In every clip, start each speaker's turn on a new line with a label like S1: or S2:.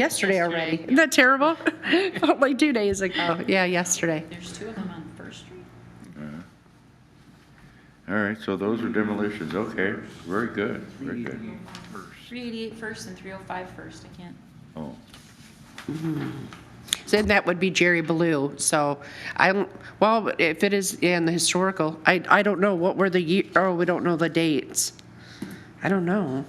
S1: yesterday already. Isn't that terrible? Felt like two days ago. Yeah, yesterday.
S2: There's two of them on First Street?
S3: All right, so those are demolitions, okay, very good, very good.
S2: 388 First and 305 First, I can't.
S3: Oh,
S1: Then that would be Jerry Blue. So I, don't- well, if it is in the historical, I, I don't know what were the year, oh, we don't know the dates. I don't know.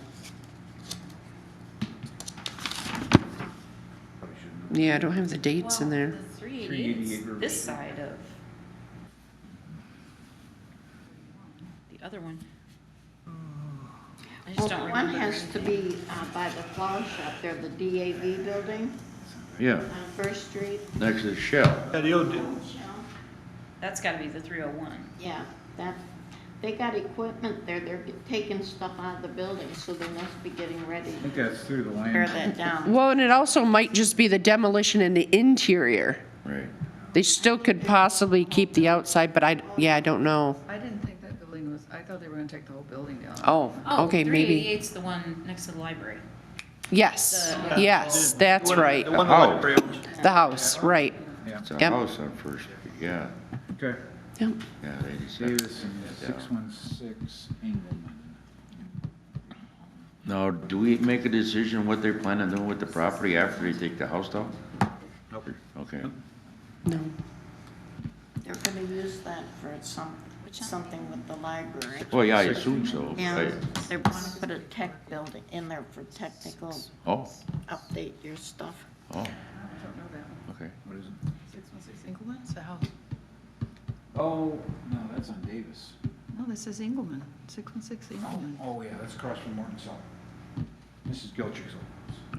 S1: Yeah, I don't have the dates in there.
S2: Well, the 388 's this side of. The other one. I just
S4: Well,
S2: don't
S4: One
S2: remember.
S4: has to be uh, by the flower shop there, the DAV building
S3: yeah,
S4: on First Street.
S3: next is Shell.
S5: Yeah, the old,
S2: That's gotta be the 301.
S4: Yeah, that, they got equipment there, they're taking stuff out of the building, so they must be getting ready
S6: I think that's through the
S4: to tear
S6: land.
S4: that down.
S1: Well, and it also might just be the demolition in the interior.
S3: Right.
S1: They still could possibly keep the outside, but I, yeah, I don't know.
S7: I didn't think that building was, I thought they were gonna take the whole building down.
S1: Oh, okay, maybe.
S2: 388's the one next to the library.
S1: Yes,
S2: the-
S1: yes, that's
S5: one-
S1: right.
S5: The one
S3: Oh.
S5: library owns.
S1: The house, right.
S3: It's a
S1: Yep.
S3: house on First Street, yeah,
S6: Okay.
S1: Yep.
S3: yeah, they decided.
S6: Davis and six one six Engelman.
S3: Now, do we make a decision what they plan on doing with the property after they take the house down?
S5: Nope.
S3: Okay,
S1: No.
S4: They're gonna use that for some, something with the library.
S3: well, yeah, I assume so.
S4: And
S3: I-
S4: they wanna put a tech building in there for technical,
S3: Oh,
S4: update your stuff.
S3: oh,
S7: I don't know that one.
S3: okay,
S6: What is it?
S7: Six one six Engelman's the house.
S6: Oh, no, that's on Davis.
S7: No, this is Engelman, six one six Engelman.
S6: Oh, yeah, that's across from Morton South. Mrs. Gilchrist's old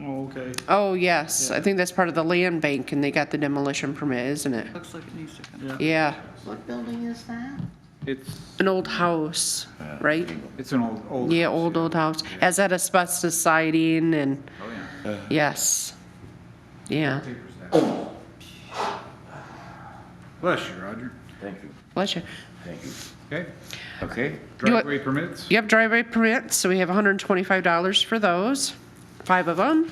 S5: Oh, okay.
S1: Oh, yes, I think that's part of the land bank and they got the demolition permit, isn't it?
S7: Looks like it needs to come.
S1: Yeah,
S4: What building is that?
S6: It's,
S1: an old house, right?
S6: it's an old, old.
S1: Yeah,
S6: house,
S1: old, old house. Has that asbestos siding and,
S6: Oh, yeah.
S1: yes. Yeah,
S6: Papers that. Bless you, Roger.
S3: thank you,
S1: bless you.
S3: thank you.
S6: Okay,
S3: Okay,
S1: You want-
S6: driveway permits?
S1: Yep, driveway permits, so we have $125 for those, five of them.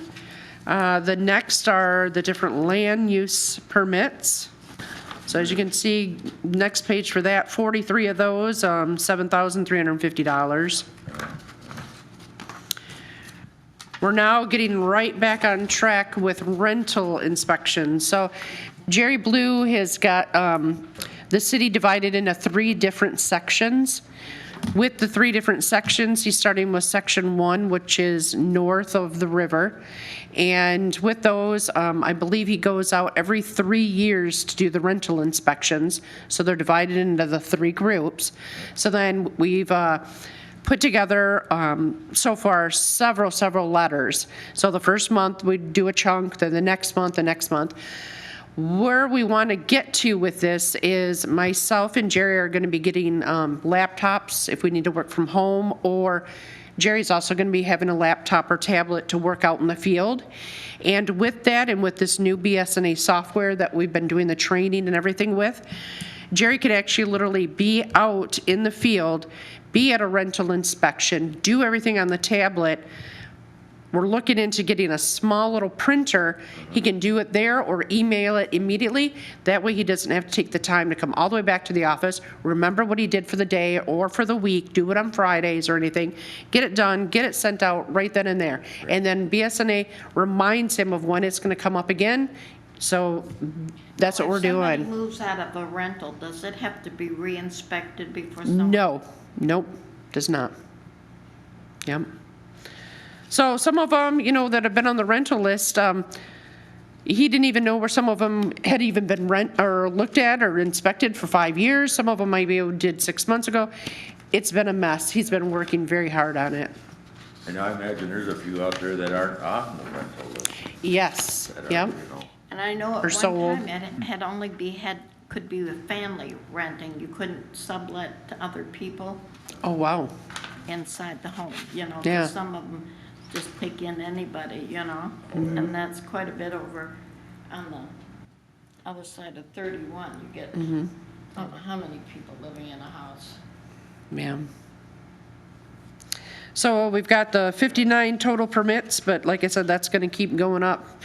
S1: Uh, The next are the different land use permits. So as you can see, next page for that, 43 of those, um, $7,350. We're now getting right back on track with rental inspections. So Jerry Blue has got um, the city divided into three different sections. With the three different sections, he's starting with section one, which is north of the river. And with those, um, I believe he goes out every three years to do the rental inspections. So they're divided into the three groups. So then we've uh, put together um, so far several, several letters. So the first month, we do a chunk, then the next month, the next month. Where we want to get to with this is myself and Jerry are going to be getting um, laptops if we need to work from home, or Jerry's also going to be having a laptop or tablet to work out in the field. And with that, and with this new BSNA software that we've been doing the training and everything with, Jerry could actually literally be out in the field, be at a rental inspection, do everything on the tablet, we're looking into getting a small little printer. He can do it there or email it immediately. That way, he doesn't have to take the time to come all the way back to the office, remember what he did for the day or for the week, do it on Fridays or anything. Get it done, get it sent out right then and there. And then BSNA reminds him of when it's going to come up again. So that's what we're
S4: If somebody
S1: doing.
S4: moves out of a rental, does it have to be re-inspected before someone?
S1: No, nope, does not. Yep. So some of them, you know, that have been on the rental list, um, he didn't even know where some of them had even been rent, or looked at or inspected for five years. Some of them maybe did six months ago. It's been a mess. He's been working very hard on it.
S3: and I imagine there's a few out there that aren't on the rental list.
S1: Yes,
S3: that are,
S1: yep,
S3: you know.
S4: And I know at
S1: Or
S4: one
S1: so old.
S4: time it had only be had, could be a family renting. You couldn't sublet to other people
S1: oh, wow,
S4: inside the home, you know? 'cause
S1: Yeah.
S4: Some of them just take in anybody, you know?
S1: Mm-hmm.
S4: And that's quite a bit over on the other side of 31. You get, I
S1: Mm-hmm.
S4: don't know how many people living in a house.
S1: ma'am. So we've got the 59 total permits, but like I said, that's going to keep going up.